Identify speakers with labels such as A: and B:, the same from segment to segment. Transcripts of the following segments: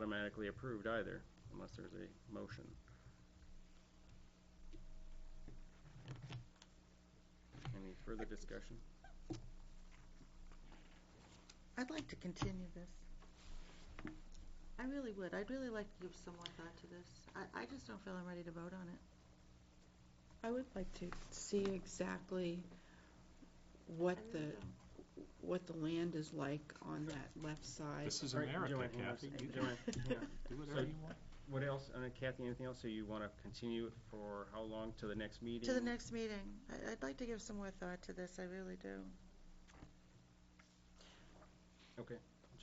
A: automatically approved either, unless there's a motion. Any further discussion?
B: I'd like to continue this. I really would. I'd really like to give some more thought to this. I, I just don't feel I'm ready to vote on it.
C: I would like to see exactly what
B: I
C: the,
B: really don't.
C: what the land is like on that left side.
D: This is
A: All right,
D: America,
A: Joanne,
D: Kathy.
A: you
D: You
A: must- Joanne, yeah.
D: Do whatever you want.
A: What else, uh, Kathy, anything else? So you want to continue it for how long, to the next meeting?
B: To the next meeting. I, I'd like to give some more thought to this. I really do.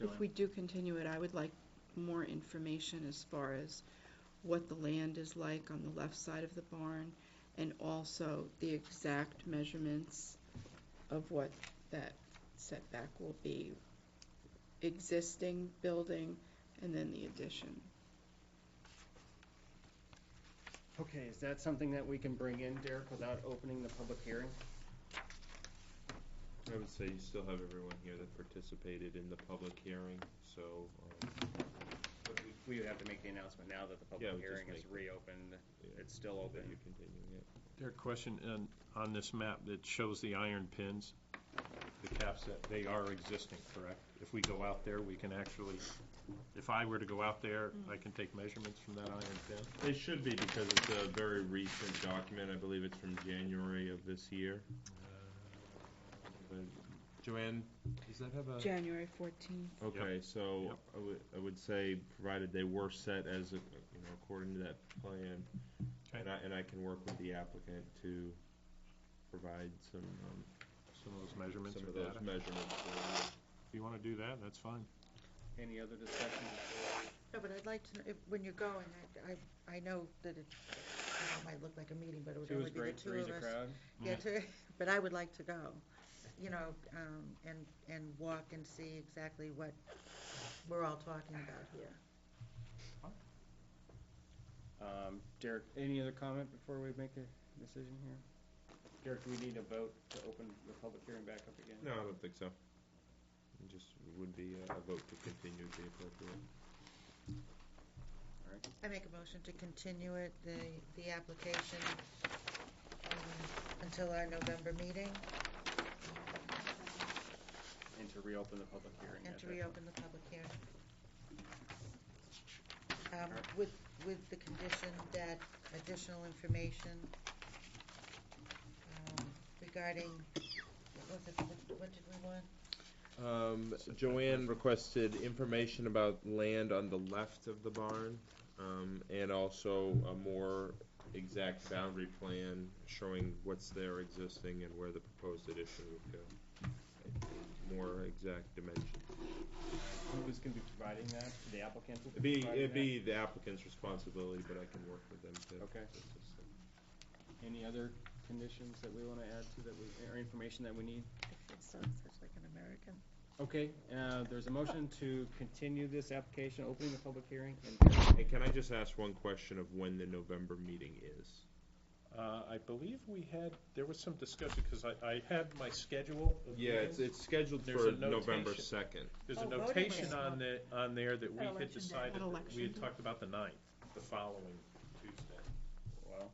C: If
A: Joanne?
C: we do continue it, I would like more information as far as what the land is like on the left side of the barn, and also the exact measurements of what that setback will be, existing building, and then the addition.
A: Okay, is that something that we can bring in, Derek, without opening the public hearing?
E: I would say you still have everyone here that participated in the public hearing, so, um,
A: But we- We would have to make the announcement now that the
E: Yeah,
A: public
E: we just
A: hearing is
E: make-
A: reopened.
E: yeah,
A: It's still
E: that
A: open.
E: you're continuing it.
D: Derek, question, and on this map that shows the iron pins, the caps that, they are existing, correct? If we go out there, we can actually, if I were to go out there, I can take measurements from that iron pin?
E: They should be because it's a very recent document. I believe it's from January of this year. But Joanne, does that have a?
C: January fourteenth.
E: Okay, so
D: Yep.
E: I would, I would say, provided they were set as, a- you know, according to that plan,
D: Okay.
E: and I, and I can work with the applicant to provide some, um,
D: Some of those measurements
E: some
D: or
E: of those
D: data.
E: measurements. for you.
D: If you want to do that, that's fine.
A: Any other discussion?
B: No, but I'd like to, know if, when you're going, I, I, I know that it, it might look like a meeting, but it would
A: Two
B: only
A: is
B: be the
A: great,
B: two
A: three is
B: of
A: a
B: us.
A: crowd.
B: Yeah, to, but I would like to go, you know, um, and, and walk and see exactly what we're all talking about here.
A: Um, Derek, any other comment before we make a decision here? Derek, do we need a vote to open the public hearing back up again?
E: No, I don't think so. It just would be uh, a vote to continue would be appropriate.
B: I make a motion to continue it, the, the application, um, until our November meeting
A: And to reopen the public hearing.
B: and
A: at
B: to
A: that-
B: reopen the public hearing. Um, with, with the condition that additional information, um, regarding, what was it, what- what did we want?
E: Um, Joanne requested information about land on the left of the barn, um, and also a more exact boundary plan showing what's there existing and where the proposed addition would go. More exact dimensions.
A: Who's gonna be providing that? The applicant will
E: It'd
A: be
E: be,
A: providing
E: it'd be the applicant's responsibility, but I can work with them to.
A: Okay.
E: to- to-
A: that? Any other conditions that we wanna add to that we, or information that we need?
B: It sounds such like an American.
A: Okay, uh, there's a motion to continue this application, opening the public hearing. and-
E: And can I just ask one question of when the November meeting is?
D: Uh, I believe we had, there was some discussion, because I, I had my schedule of
E: Yeah, it's,
D: meetings.
E: it's scheduled
D: There's
E: for
D: a
E: November
D: notation.
E: second.
D: There's a
B: Oh, voting
D: notation
B: rights.
D: on the, on there that we
B: Election
D: had
B: day.
D: decided, that we
C: Election
D: had
C: day.
D: talked about the ninth, the following Tuesday.
A: Well,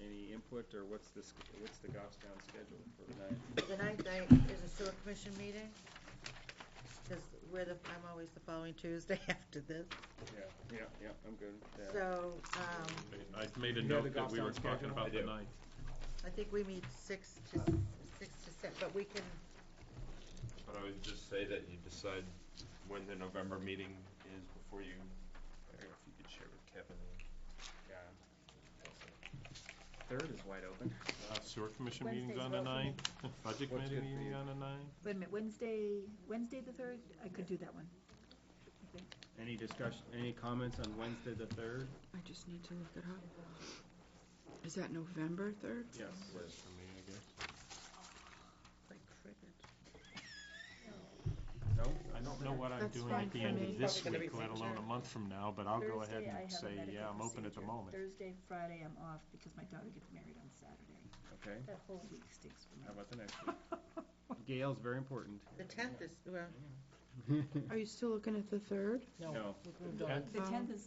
A: any input or what's this, what's the Goffstown schedule for tonight?
B: The ninth night is a sewer commission meeting, because we're the, I'm always the following Tuesday after this,
A: Yeah, yeah, yeah, I'm good. Yeah.
B: so, um,
D: I've made a
A: You know the
D: note that we were
A: Goffstown schedule?
D: talking about the
E: I do.
D: ninth.
B: I think we meet six to, six to seven, but we can,
E: But I would just say that you decide when the November meeting is before you, I don't know if you could share with Kevin.
A: Yeah. Third is wide open.
D: Uh, Sewer commission
F: Wednesday's
D: meeting's on the
F: vote for me.
D: ninth, budget
A: What's
D: committee
A: good for
D: meeting
A: you?
D: on the ninth.
F: Wait a minute, Wednesday, Wednesday the third? I could do that one.
A: Any discussion, any comments on Wednesday the third?
C: I just need to look it up. Is that November third?
A: Yes.
B: like, cricket.
A: No?
D: I don't know what I'm
C: That's
D: doing at
C: fine
D: the
C: for
D: end
C: me.
D: of this
B: Probably gonna
D: week,
B: be
D: let alone
B: premature.
D: a month from now, but I'll go ahead
F: Thursday, I
D: and
F: have a
D: say,
F: medical
D: yeah, I'm open at the
F: procedure.
D: moment.
F: Thursday, Friday, I'm off because my daughter gets married on Saturday.
A: Okay,
F: That whole week stinks for me.
A: how about the next one? Gail's very important.
B: The tenth is, well,
C: Are you still looking at the third?
A: No.
F: The tenth is